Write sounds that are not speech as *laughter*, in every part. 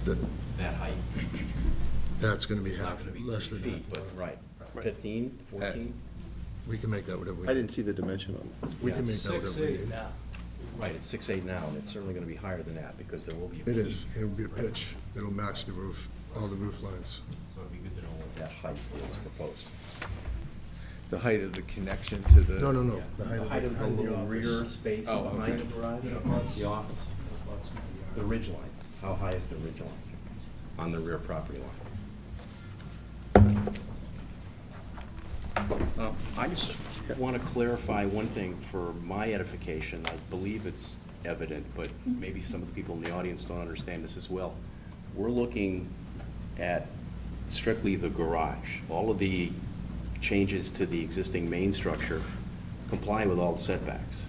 that, that height. that's gonna be It's not half, gonna be less three than feet, half. but, right, Right. 15, 14? We can make that whatever we. I didn't see the dimension on We can make Yeah. that Six, whatever we eight need. now. Right, it's six eight now, and it's certainly going to be higher than that, because there will be. a It is, peak. it'll be a pitch, it'll match the roof, all the roof lines. So it'd be good to know what that height is proposed. The height of the connection to the. No, no, no. The height of the little little rear space Oh, behind okay. the garage, Yeah, lots. the office, the ridge line. How high is the ridge line on the rear property line? Uh, I just want to clarify one thing for my edification. I believe it's evident, but maybe some of the people in the audience don't understand this as well. We're looking at strictly the garage. All of the changes to the existing main structure comply with all the setbacks.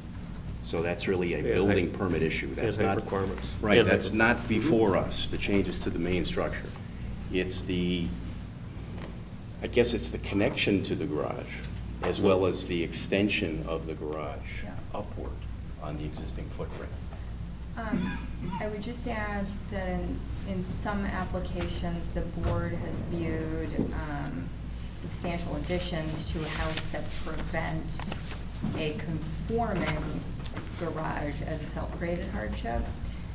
So that's really a Yeah, height- building permit issue. That's And height not. requirements. Right, And height that's not before us, the changes to the main structure. It's the, I guess it's the connection to the garage, as well as the extension of the garage upward on the existing footprint. Um, I would just add that in, in some applications, the board has viewed um, substantial additions to a house that prevent a conforming garage as a self-created hardship.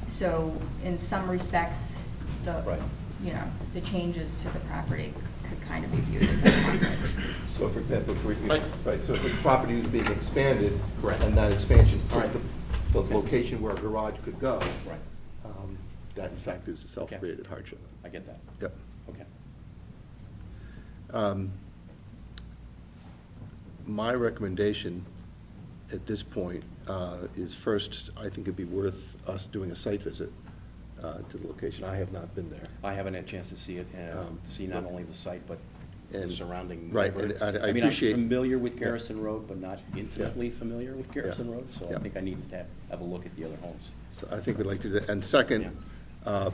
So in some respects, the, Right. you know, the changes to the property could kind of be viewed as a hardship. So for example, if we, Right. right, so if the property was being expanded. Correct. And that expansion All right. took the, the location where a garage could go. Right. um, That in fact is a self-created hardship. I get that. Yep. Okay. Um, My recommendation at this point uh, is first, I think it'd be worth us doing a site visit uh, to the location. I have not been there. I haven't had a chance to see it, and Um, see not only the site, but the and- surrounding. right, neighborhood. and I- I appreciate- mean, I'm familiar with Yeah. Garrison Road, but not intimately familiar with Garrison Road, so I Yeah. think I need to have, have a look at the other homes. So I think we'd like to, do that. and second, uh,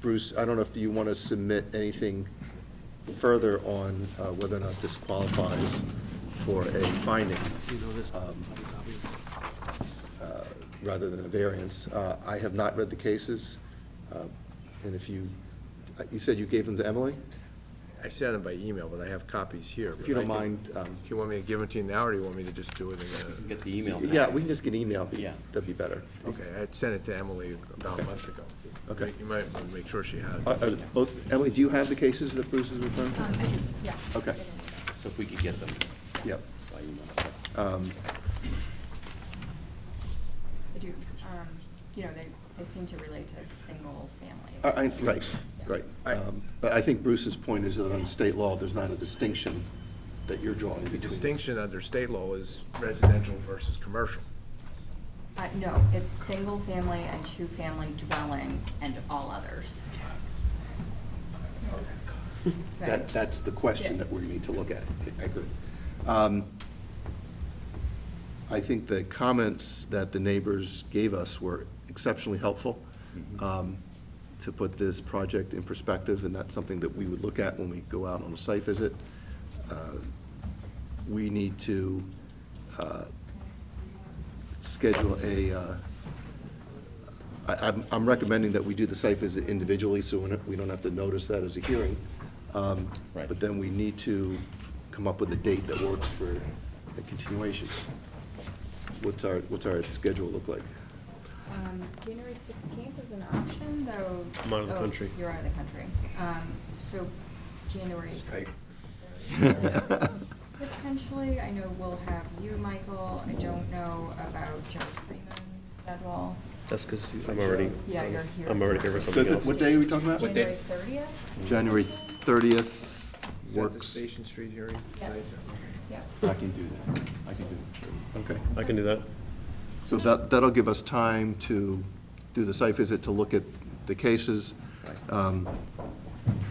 Bruce, I don't know if you want to submit anything further on uh, whether or not this qualifies for a finding, um, uh, rather than a variance. Uh, I have not read the cases, uh, and if you, uh, you said you gave them to Emily? I sent them by email, but I have copies here. If you don't but I can- mind, um, Do you want me to give them to you now, or do you want me to just do it in Get the email. yeah, we can just get an email, Yeah. that'd be better. a, okay, I sent it to Emily about a month ago. Okay. You might want to make sure she has Are- it. are Uh, both- Emily, do you have the cases that Bruce is referring Uh, to? Yeah. Okay, So if we could get them yep. by email. Um, I do, um, you know, they, they seem to relate to single-family. Uh, I- I- Right, right. Um, But I think Bruce's point is that under state law, there's not a distinction that you're drawing The between. distinction under state law is residential versus commercial. Uh, no, it's single-family and two-family dwelling and all others. That, Right. that's the question Yeah. that we need to look at. I agree. Um, I think the comments that the neighbors gave us were exceptionally helpful um, to put this project in perspective, and that's something that we would look at when we go out on a site visit. Uh, We need to uh, schedule a, uh, I, I'm, I'm recommending that we do the site visit individually, so we're not- we don't have to notice that as a hearing. Um, Right. But then we need to come up with a date that works for the continuation. What's our, what's our schedule look like? Um, January sixteenth is an option, though. I'm out of the oh, country. You're out of the country. Um, so January. *laughs* Potentially, I know we'll have you, Michael. I don't know about John Freeman's schedule. That's because I'm already. Yeah, you're here. I'm already here for So something th- else. what day are we talking about? What January day? thirtieth? *laughs* January thirtieth Is that the works. Station Street hearing? Yeah. Yeah. I can do that. I can do that. Okay. I can do that. So that, that'll give us time to do the site visit, to look at the cases. Um,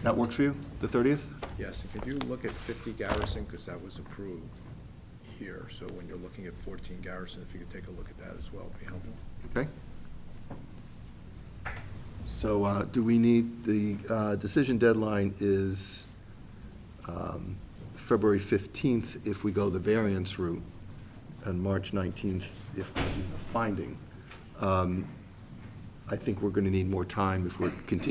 That works for you, the 30th? Yes, and could you look at 50 Garrison, because that was approved here, so when you're looking at 14 Garrison, if you could take a look at that as well, it'd be helpful. Okay. So uh, do we need, the uh, decision deadline is um, February 15th if we go the variance route, and March 19th if we do the finding. Um, I think we're going to need more time if we're continuing